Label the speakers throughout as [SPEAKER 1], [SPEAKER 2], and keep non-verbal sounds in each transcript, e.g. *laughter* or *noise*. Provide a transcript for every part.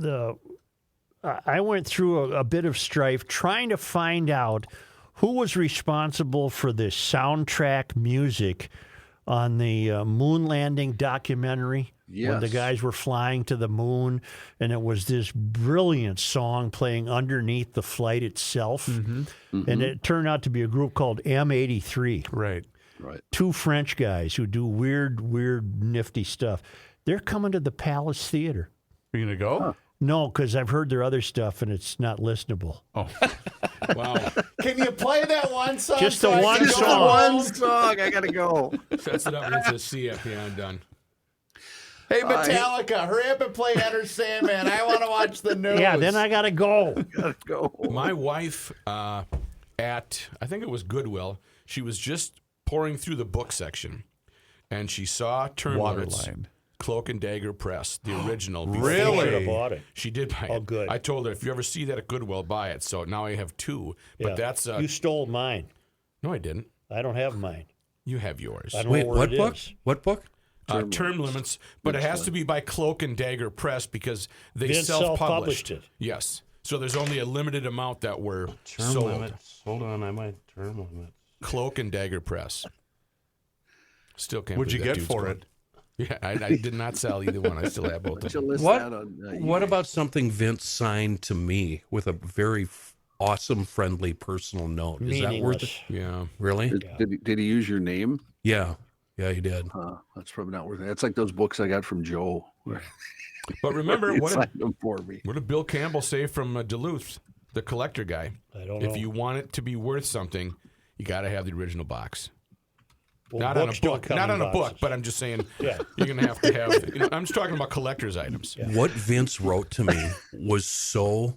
[SPEAKER 1] the I I went through a, a bit of strife trying to find out who was responsible for the soundtrack music on the uh, moon landing documentary when the
[SPEAKER 2] Yes.
[SPEAKER 1] guys were flying to the moon and it was this brilliant song playing underneath the flight itself
[SPEAKER 3] Mm-hmm.
[SPEAKER 2] Mm-hmm.
[SPEAKER 1] and it turned out to be a group called M83
[SPEAKER 3] Right.
[SPEAKER 2] Right.
[SPEAKER 1] two French guys who do weird, weird, nifty stuff. They're coming to the Palace Theater.
[SPEAKER 3] Are you gonna go?
[SPEAKER 1] No, because I've heard their other stuff and it's not listenable.
[SPEAKER 3] Wow.
[SPEAKER 4] *laughs* Can you play that one song?
[SPEAKER 1] Just
[SPEAKER 4] so
[SPEAKER 1] the
[SPEAKER 4] I can
[SPEAKER 1] one
[SPEAKER 4] go?
[SPEAKER 2] Just the
[SPEAKER 1] song.
[SPEAKER 2] one song. I gotta go. *laughs*
[SPEAKER 3] Sets it up against the CFP. I'm done.
[SPEAKER 4] Hey,
[SPEAKER 1] Uh,
[SPEAKER 4] Metallica, hurry up and play Enter Sandman. I want to watch the
[SPEAKER 1] *laughs*
[SPEAKER 4] news.
[SPEAKER 1] Yeah, then I got to go.
[SPEAKER 2] Gotta go.
[SPEAKER 3] My wife, uh, at I think it was Goodwill, she was just pouring through the book section, and she saw Turn Waterline.
[SPEAKER 4] Waterline.
[SPEAKER 3] Cloak and Dagger Press,
[SPEAKER 1] *gasps*
[SPEAKER 3] the original. before
[SPEAKER 4] Really?
[SPEAKER 3] she-
[SPEAKER 1] Should have bought it.
[SPEAKER 3] She did buy it.
[SPEAKER 1] Oh, good.
[SPEAKER 3] I told her if you ever see that at Goodwill, buy it. So now I have two. But
[SPEAKER 1] Yeah.
[SPEAKER 3] that's uh,
[SPEAKER 1] You stole mine.
[SPEAKER 3] no, I didn't.
[SPEAKER 1] I don't have mine.
[SPEAKER 3] You have yours.
[SPEAKER 1] I don't
[SPEAKER 5] Wait,
[SPEAKER 1] know where
[SPEAKER 5] what
[SPEAKER 1] it
[SPEAKER 5] book?
[SPEAKER 1] is.
[SPEAKER 5] What book?
[SPEAKER 3] Uh, term limits, but it has to be by Cloak and Dagger Press because they
[SPEAKER 1] Then
[SPEAKER 3] self-published.
[SPEAKER 1] self-published it.
[SPEAKER 3] Yes, so there's only a limited amount that were
[SPEAKER 6] Term
[SPEAKER 3] sold.
[SPEAKER 6] limits. Hold on, I might term limits.
[SPEAKER 3] Cloak and Dagger Press. Still can't. What'd believe you that get dude's for gone. *laughs* Yeah, I, I did not sell either one. I still have both of
[SPEAKER 2] To
[SPEAKER 6] *laughs*
[SPEAKER 3] them.
[SPEAKER 2] list
[SPEAKER 5] What?
[SPEAKER 2] that on, uh,
[SPEAKER 5] what
[SPEAKER 2] eBay.
[SPEAKER 5] about something Vince signed to me with a very f- awesome, friendly personal note? Is that worth it?
[SPEAKER 1] Meaningless.
[SPEAKER 3] Yeah,
[SPEAKER 5] Really?
[SPEAKER 2] Did, did, he, did he use your name?
[SPEAKER 5] Yeah. Yeah, he did.
[SPEAKER 2] Uh, that's probably not worth it. That's like those books I got from Joe. *laughs*
[SPEAKER 3] but remember
[SPEAKER 2] He
[SPEAKER 3] what? Did,
[SPEAKER 2] signed them for me.
[SPEAKER 3] what did Bill Campbell say from uh, Duluth, the collector guy?
[SPEAKER 1] I don't know.
[SPEAKER 3] If you want it to be worth something, you got to have the original box.
[SPEAKER 1] Well,
[SPEAKER 3] not on a
[SPEAKER 1] books don't
[SPEAKER 3] book,
[SPEAKER 1] come
[SPEAKER 3] not
[SPEAKER 1] in
[SPEAKER 3] on a book,
[SPEAKER 1] boxes.
[SPEAKER 3] but I'm just
[SPEAKER 1] *laughs*
[SPEAKER 3] saying you're gonna have to have. You know, I'm just talking about collector's items.
[SPEAKER 5] What Vince wrote to
[SPEAKER 2] *laughs*
[SPEAKER 5] me was so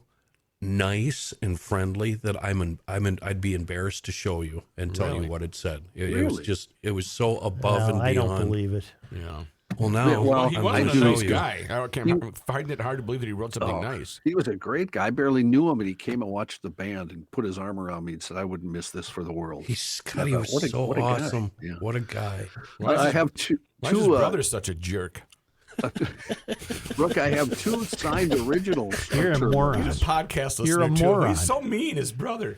[SPEAKER 5] nice and friendly that I'm an, I'm an, I'd be embarrassed to show you and tell
[SPEAKER 3] Really?
[SPEAKER 5] you what it said. It, it was
[SPEAKER 2] Really?
[SPEAKER 5] just it was so above and
[SPEAKER 1] No,
[SPEAKER 5] beyond.
[SPEAKER 1] I don't believe it.
[SPEAKER 3] Yeah.
[SPEAKER 5] Well, now
[SPEAKER 2] Yeah, well,
[SPEAKER 3] He
[SPEAKER 2] I
[SPEAKER 5] I'm
[SPEAKER 3] wasn't
[SPEAKER 2] do.
[SPEAKER 3] a
[SPEAKER 5] gonna show
[SPEAKER 3] nice
[SPEAKER 5] you.
[SPEAKER 3] guy. I can't remember, finding it hard to believe that he wrote something
[SPEAKER 2] Oh.
[SPEAKER 3] nice.
[SPEAKER 2] He was a great guy. I barely knew him, and he came and watched the band and put his arm around me and said, "I wouldn't miss this for the world."
[SPEAKER 5] He's God, he
[SPEAKER 2] Yeah,
[SPEAKER 5] was
[SPEAKER 2] what a-
[SPEAKER 5] so
[SPEAKER 2] what a guy.
[SPEAKER 5] awesome.
[SPEAKER 2] Yeah.
[SPEAKER 5] What a guy.
[SPEAKER 3] Why is,
[SPEAKER 2] I
[SPEAKER 3] his,
[SPEAKER 2] have two.
[SPEAKER 3] why is his
[SPEAKER 2] two uh,
[SPEAKER 3] brother such a jerk?
[SPEAKER 2] Brooke, I have
[SPEAKER 5] *laughs*
[SPEAKER 2] two signed originals. of
[SPEAKER 1] You're a
[SPEAKER 2] Turn
[SPEAKER 1] moron.
[SPEAKER 2] Limits.
[SPEAKER 3] He's a podcast listener
[SPEAKER 1] You're a
[SPEAKER 3] too.
[SPEAKER 1] moron.
[SPEAKER 3] He's so mean, his brother.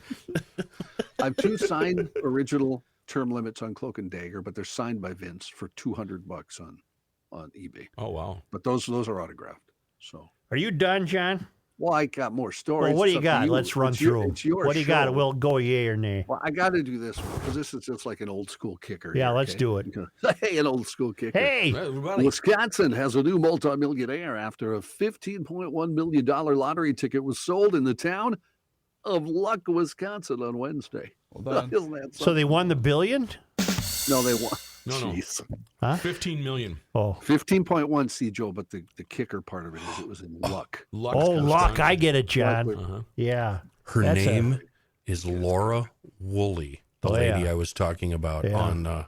[SPEAKER 2] I have two signed original term limits on Cloak and Dagger, but they're signed by Vince for two hundred bucks on on eBay.
[SPEAKER 3] Oh wow.
[SPEAKER 2] But those those are autographed. So,
[SPEAKER 1] Are you done, John?
[SPEAKER 2] well, I got more stories.
[SPEAKER 1] Well, what do
[SPEAKER 2] It's
[SPEAKER 1] you
[SPEAKER 2] up to
[SPEAKER 1] got? Let's run
[SPEAKER 2] It's your-
[SPEAKER 1] through. 'em.
[SPEAKER 2] it's your
[SPEAKER 1] what do you got?
[SPEAKER 2] show.
[SPEAKER 1] We'll go yay or nay.
[SPEAKER 2] Well, I got to do this one because this is just like an old school kicker.
[SPEAKER 1] Yeah,
[SPEAKER 2] here,
[SPEAKER 1] let's
[SPEAKER 2] okay?
[SPEAKER 1] do it.
[SPEAKER 2] *laughs* hey, an old school kicker.
[SPEAKER 1] Hey,
[SPEAKER 3] Everybody-
[SPEAKER 2] Wisconsin has a new multimillionaire after a $15.1 million lottery ticket was sold in the town of Luck, Wisconsin on Wednesday. *laughs*
[SPEAKER 4] Hold on.
[SPEAKER 2] Isn't that
[SPEAKER 1] so they won the billion?
[SPEAKER 2] something? no, they won.
[SPEAKER 3] No, no.
[SPEAKER 2] Jeez.
[SPEAKER 3] Fifteen million.
[SPEAKER 1] Oh,
[SPEAKER 2] 15.1, see, Joe, but the, the kicker part of it is it was in luck.
[SPEAKER 3] Luck.
[SPEAKER 1] oh, luck! I get it,
[SPEAKER 2] Luck
[SPEAKER 1] John.
[SPEAKER 2] was-
[SPEAKER 3] Uh-huh.
[SPEAKER 1] Yeah.
[SPEAKER 5] Her
[SPEAKER 1] That's a-
[SPEAKER 5] name is Laura Woolley, the
[SPEAKER 1] Oh,
[SPEAKER 5] lady
[SPEAKER 1] yeah.
[SPEAKER 5] I was talking about
[SPEAKER 1] Yeah.
[SPEAKER 5] on. Uh,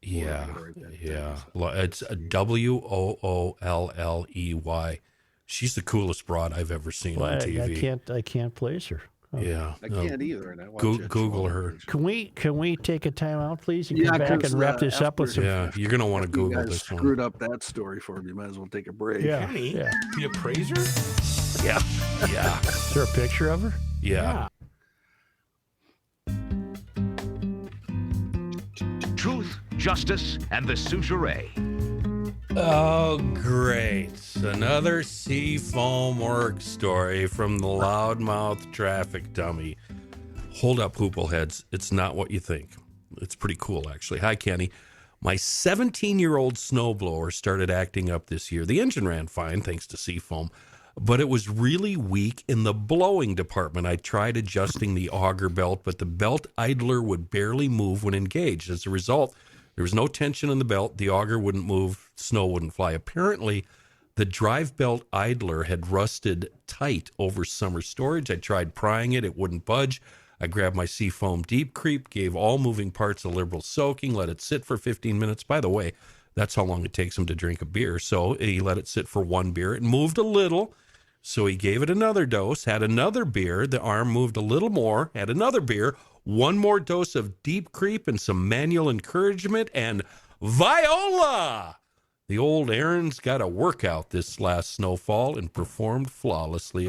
[SPEAKER 5] yeah,
[SPEAKER 2] gotta write that down.
[SPEAKER 5] yeah. Lo- It's W O O L L E Y. She's the coolest broad I've ever seen
[SPEAKER 1] Well,
[SPEAKER 5] on
[SPEAKER 1] I, I
[SPEAKER 5] TV.
[SPEAKER 1] can't. oh. I can't place her.
[SPEAKER 5] yeah,
[SPEAKER 2] I
[SPEAKER 5] no.
[SPEAKER 2] can't either. And I watch
[SPEAKER 5] Goo-
[SPEAKER 2] that show
[SPEAKER 5] Google
[SPEAKER 2] all the
[SPEAKER 5] her.
[SPEAKER 2] time.
[SPEAKER 1] Can we can we take a time out, please, and
[SPEAKER 2] Yeah,
[SPEAKER 1] come back
[SPEAKER 2] 'cause,
[SPEAKER 1] and wrap
[SPEAKER 2] uh,
[SPEAKER 1] this up with
[SPEAKER 2] after-
[SPEAKER 1] some?
[SPEAKER 5] yeah. You're gonna want to
[SPEAKER 2] You
[SPEAKER 5] Google
[SPEAKER 2] guys
[SPEAKER 5] this
[SPEAKER 2] screwed
[SPEAKER 5] one.
[SPEAKER 2] up that story for me. You might as well take a break.
[SPEAKER 1] Yeah.
[SPEAKER 3] Penny,
[SPEAKER 1] Yeah.
[SPEAKER 3] the appraiser.
[SPEAKER 5] Yeah,
[SPEAKER 1] Is there a picture of her?
[SPEAKER 5] yeah.
[SPEAKER 7] Truth, justice, and the suture.
[SPEAKER 5] Oh, great! Another Seafoam Work story from the loudmouth traffic dummy. Hold up, hoopleheads. It's not what you think. It's pretty cool, actually. Hi, Kenny. My 17 year old snowblower started acting up this year. The engine ran fine, thanks to Seafoam, but it was really weak in the blowing department. I tried adjusting the auger belt, but the belt idler would barely move when engaged. As a result, there was no tension in the belt. The auger wouldn't move, snow wouldn't fly. Apparently, the drive belt idler had rusted tight over summer storage. I tried prying it, it wouldn't budge. I grabbed my Seafoam Deep Creep, gave all moving parts a liberal soaking, let it sit for 15 minutes. By the way, that's how long it takes him to drink a beer. So he let it sit for one beer. It moved a little. So he gave it another dose, had another beer. The arm moved a little more, had another beer, one more dose of deep creep and some manual encouragement, and Viola! The old Aaron's got a workout this last snowfall and performed flawlessly